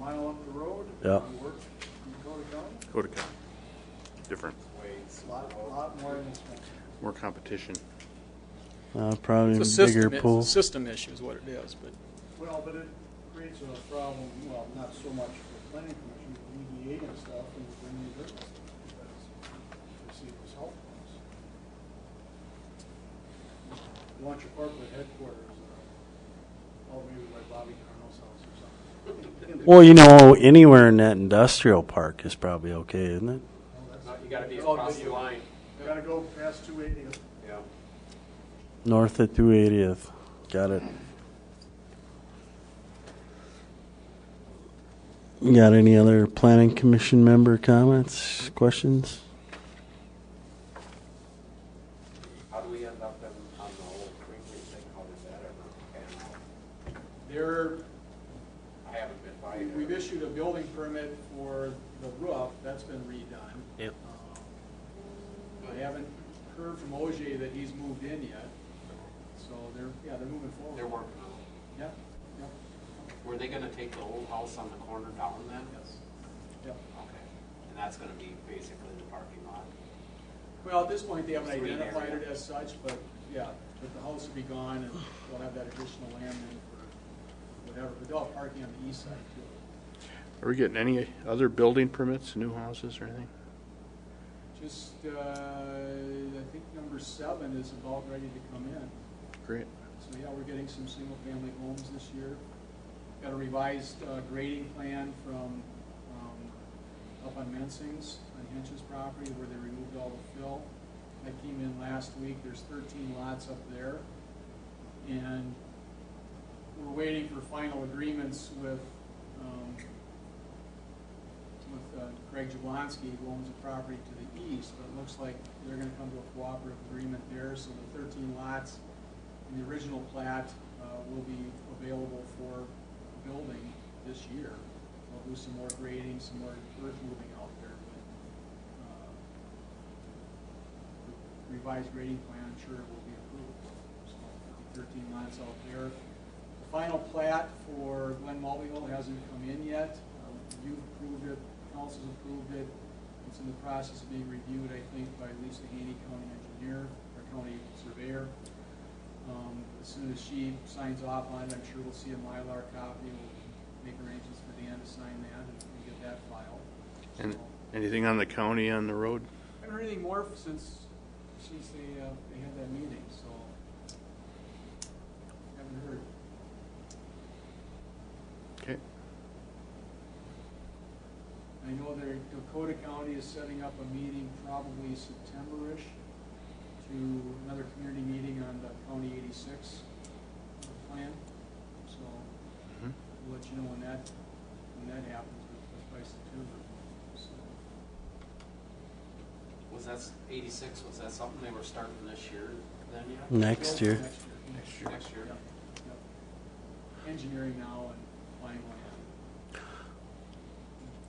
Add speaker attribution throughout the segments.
Speaker 1: mile up the road.
Speaker 2: Yeah.
Speaker 1: He works in Dakota County.
Speaker 3: Dakota County. Different.
Speaker 1: It's a lot, lot more than this one.
Speaker 3: More competition.
Speaker 2: Uh, probably
Speaker 4: It's a
Speaker 2: bigger
Speaker 4: system, it's a
Speaker 2: pool.
Speaker 4: system issue is what it is, but
Speaker 1: Well, but it creates a problem, well, not so much for planning commission, but EDA and stuff, and bringing business. Because we see it was helpful. You want your corporate headquarters, uh, all maybe by Bobby Carnell's house or something.
Speaker 2: Well, you know, anywhere in that industrial park is probably okay, isn't it?
Speaker 5: No, Uh, You gotta be across the line,
Speaker 1: Gotta go past two eighty.
Speaker 5: yeah.
Speaker 2: North of 280th. Got it. You got any other planning commission member comments, questions?
Speaker 5: How do we end up in, on the whole Greenway thing, how did that ever pan out?
Speaker 4: there,
Speaker 5: uh, I haven't been by
Speaker 4: we-
Speaker 5: there.
Speaker 4: we've issued a building permit for the roof, that's been redone.
Speaker 2: Yep.
Speaker 4: Um, I haven't heard from OJ that he's moved in yet, so they're, yeah, they're moving forward.
Speaker 5: They're working on
Speaker 4: Yeah, yeah,
Speaker 5: it. Were they gonna take the old house on the corner down then?
Speaker 4: yes, yeah.
Speaker 5: Okay, and that's gonna be basically the parking lot.
Speaker 4: Well, at this point, they haven't
Speaker 5: Green area.
Speaker 4: identified it as such, but yeah, but the house will be gone and we'll have that additional land in for whatever, but they'll have parking on the east side too.
Speaker 3: Are we getting any other building permits, new houses or anything?
Speaker 4: Just, uh, I think number seven is about ready to come in.
Speaker 3: Great.
Speaker 4: So yeah, we're getting some single-family homes this year. Got a revised uh, grading plan from um, up on Mensing's, on Hinch's property, where they removed all the fill. That came in last week, there's 13 lots up there. And we're waiting for final agreements with, um, with uh, Craig Jablonski, who owns a property to the east, but it looks like they're gonna come to a cooperative agreement there, so the thirteen lots in the original plat, uh, will be available for building this year. We'll do some more grading, some more earth moving out there, but, uh, the revised grading plan, I'm sure it will be approved. So there'll be thirteen lots out there. The Final plat for Glen Mulvey Hill hasn't come in yet. Um, You've approved it, council's approved it. It's in the process of being reviewed, I think, by Lisa Haney, county engineer, or county surveyor. Um, As soon as she signs off on it, I'm sure we'll see a Mylar copy. We'll make arrangements for Dan to sign that and we get that filed.
Speaker 3: And
Speaker 4: So-
Speaker 3: anything on the county on the road?
Speaker 4: I haven't heard anything more since, since they, uh, they had that meeting, so. Haven't heard.
Speaker 3: Okay.
Speaker 4: I know their Dakota County is setting up a meeting probably September-ish to another community meeting on the County eighty-six plan. So
Speaker 3: Mhm.
Speaker 4: we'll let you know when that, when that happens, but that's by September, so.
Speaker 5: Was that eighty-six, was that something they were starting this year then yet?
Speaker 2: Next year.
Speaker 5: Next year. Next year.
Speaker 4: Yep, yep. Engineering now and buying land.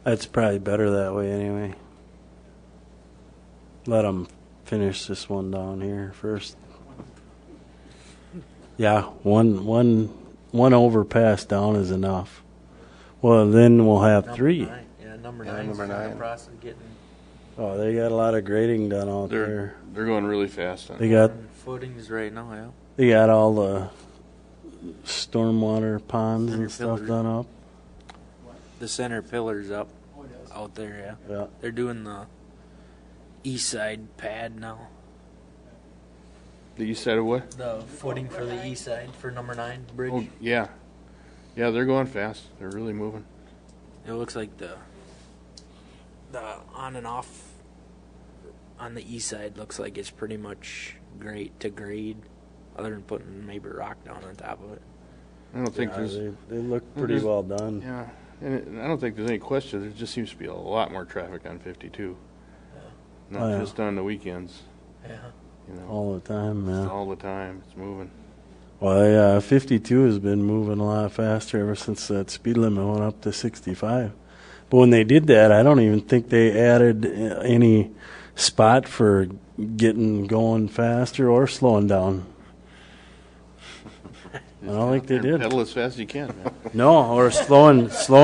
Speaker 2: That's probably better that way anyway. Let them finish this one down here first. Yeah, one one one overpass down is enough. Well, then we'll have
Speaker 6: Number
Speaker 2: three.
Speaker 6: nine. Yeah, number
Speaker 3: Yeah,
Speaker 6: nine.
Speaker 3: number nine.
Speaker 6: The process of getting
Speaker 2: Oh, they got a lot of grading done out
Speaker 3: They're,
Speaker 2: there.
Speaker 3: they're going really fast on
Speaker 2: They
Speaker 3: it.
Speaker 2: got
Speaker 6: footings right now. Yeah.
Speaker 2: they got all the stormwater ponds and stuff
Speaker 6: Underfilled.
Speaker 2: done up.
Speaker 6: The center pillars up
Speaker 4: Oh, it is.
Speaker 6: out there. Yeah.
Speaker 2: Yeah.
Speaker 6: They're doing the east side pad now.
Speaker 3: The east side of what?
Speaker 6: The footing for the east side for number nine bridge.
Speaker 3: Oh, yeah. Yeah, they're going fast. They're really moving.
Speaker 6: It looks like the the on and off on the east side looks like it's pretty much great to grade, other than putting maybe rock down on top of it.
Speaker 3: I don't think
Speaker 2: Yeah,
Speaker 3: there's,
Speaker 2: they, they look pretty
Speaker 3: there's-
Speaker 2: well done.
Speaker 3: Mm-hmm. yeah, and it- and I don't think there's any question. There just seems to be a lot more traffic on 52.
Speaker 2: Oh,
Speaker 3: Not
Speaker 2: yeah. Oh,
Speaker 3: just on the weekends,
Speaker 6: Yeah.
Speaker 3: you know,
Speaker 2: All the time, man.
Speaker 3: all the time. It's moving.
Speaker 2: Well, yeah, 52 has been moving a lot faster ever since that speed limit went up to 65. But when they did that, I don't even think they added uh, any spot for getting going faster or slowing down. I don't think they
Speaker 3: And
Speaker 2: did.
Speaker 3: Pedal as fast as you can, man.
Speaker 2: No, or slowing, slowing.